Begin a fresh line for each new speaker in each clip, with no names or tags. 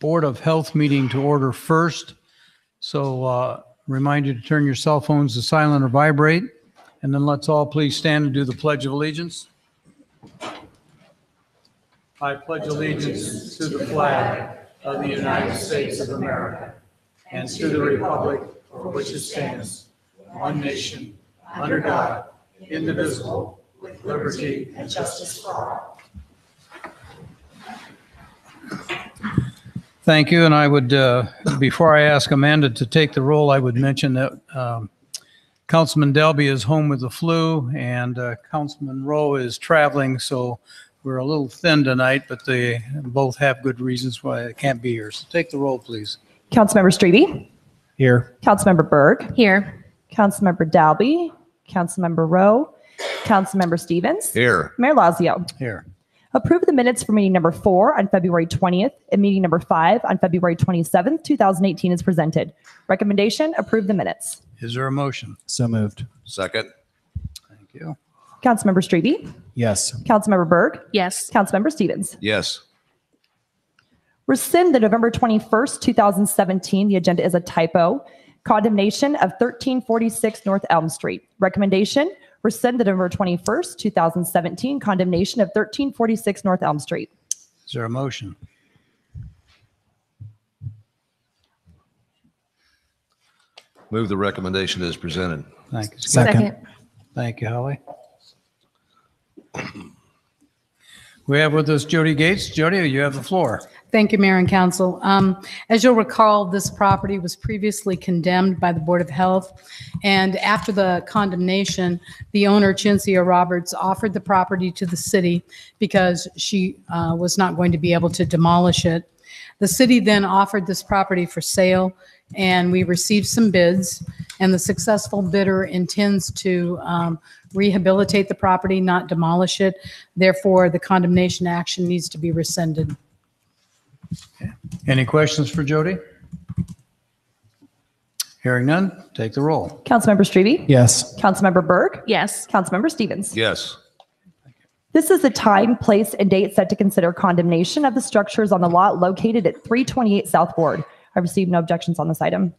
Board of Health meeting to order first. So uh, remind you to turn your cell phones to silent or vibrate. And then let's all please stand and do the Pledge of Allegiance. I pledge allegiance to the flag of the United States of America and to the republic for which it stands, one nation, under God, indivisible, with liberty and justice for all. Thank you, and I would, uh, before I ask Amanda to take the roll, I would mention that um, Councilman Delby is home with the flu, and uh, Councilman Rowe is traveling, so we're a little thin tonight, but they both have good reasons why they can't be here. So take the roll, please.
Councilmember Strebe,
Here.
Councilmember Berg,
Here.
Councilmember Dalby, Councilmember Rowe, Councilmember Stevens,
Here.
Mayor Lazio.
Here.
Approve the minutes for meeting number four on February 20th and meeting number five on February 27th, 2018 is presented. Recommendation, approve the minutes.
Is there a motion?
So moved.
Second,
Thank you.
Councilmember Strebe,
Yes.
Councilmember Berg,
Yes.
Councilmember Stevens.
yes.
Rescind the November 21st, 2017, the agenda is a typo. Condemnation of 1346 North Elm Street. Recommendation, rescind the November 21st, 2017, condemnation of 1346 North Elm Street.
Is there a motion?
Move the recommendation as presented.
Thank you.
Second.
Thank you, Holly. We have with us Jody Gates. Jody, you have the floor.
Thank you, Mayor and Council. Um, As you'll recall, this property was previously condemned by the Board of Health, and after the condemnation, the owner, Chinsia Roberts, offered the property to the city because she uh, was not going to be able to demolish it. The city then offered this property for sale, and we received some bids, and the successful bidder intends to um, rehabilitate the property, not demolish it. Therefore, the condemnation action needs to be rescinded.
Any questions for Jody? Hearing none, take the roll.
Councilmember Strebe?
Yes.
Councilmember Berg?
Yes.
Councilmember Stevens?
Yes,
This is the time, place, and date set to consider condemnation of the structures on the lot located at 328 South Ward. I received no objections on this item.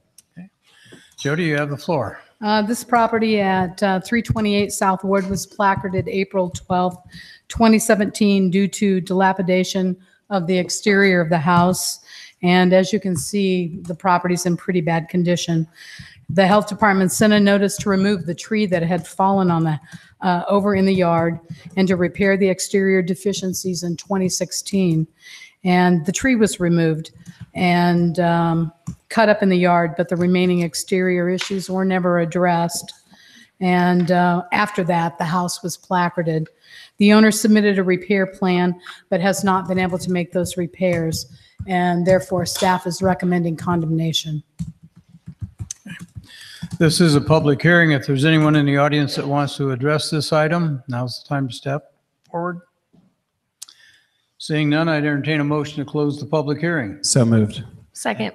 Jody, you have the floor.
Uh, This property at uh, 328 South Ward was placarded April 12th, 2017, due to dilapidation of the exterior of the house. And as you can see, the property's in pretty bad condition. The health department sent a notice to remove the tree that had fallen on the, uh, over in the yard and to repair the exterior deficiencies in 2016. And the tree was removed and um, cut up in the yard, but the remaining exterior issues were never addressed. And uh, after that, the house was placarded. The owner submitted a repair plan, but has not been able to make those repairs. And therefore, staff is recommending condemnation.
This is a public hearing. If there's anyone in the audience that wants to address this item, now's the time to step forward. Seeing none, I'd entertain a motion to close the public hearing.
So moved.
Second.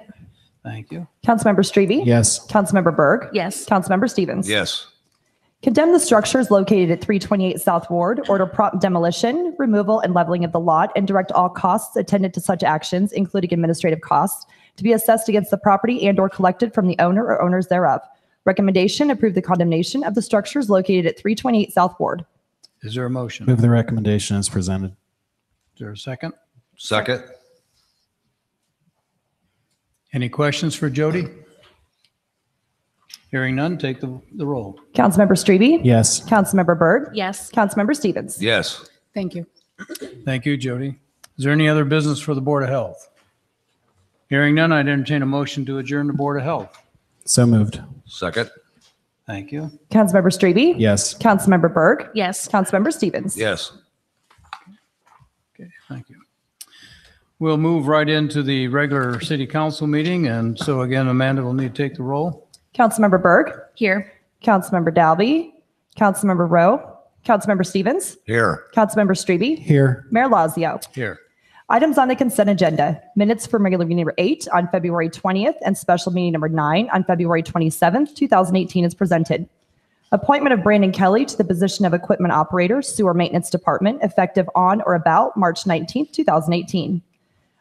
Thank you.
Councilmember Strebe?
Yes.
Councilmember Berg?
Yes.
Councilmember Stevens?
yes,
Condemn the structures located at 328 South Ward, order prompt demolition, removal, and leveling of the lot, and direct all costs attendant to such actions, including administrative costs, to be assessed against the property and/or collected from the owner or owners thereof. Recommendation, approve the condemnation of the structures located at 328 South Ward.
Is there a motion? Is
Move the recommendation as presented.
there a second?
second,
Any questions for Jody? Hearing none, take the, the roll.
Councilmember Strebe?
Yes.
Councilmember Berg?
Yes.
Councilmember Stevens?
yes.
Thank you.
Thank you, Jody. Is there any other business for the Board of Health? Hearing none, I'd entertain a motion to adjourn the Board of Health.
So moved.
Second,
Thank you.
Councilmember Strebe?
Yes.
Councilmember Berg?
Yes.
Councilmember Stevens?
yes.
Okay, thank you. We'll move right into the regular city council meeting, and so again, Amanda will need to take the roll.
Councilmember Berg?
Here.
Councilmember Dalby? Councilmember Rowe? Councilmember Stevens?
Here,
Councilmember Strebe.
Here.
Mayor Lazio.
Here.
Items on the consent agenda. Minutes for regular meeting number eight on February 20th and special meeting number nine on February 27th, 2018 is presented. Appointment of Brandon Kelly to the position of Equipment Operator, Sewer Maintenance Department, effective on or about March 19th, 2018.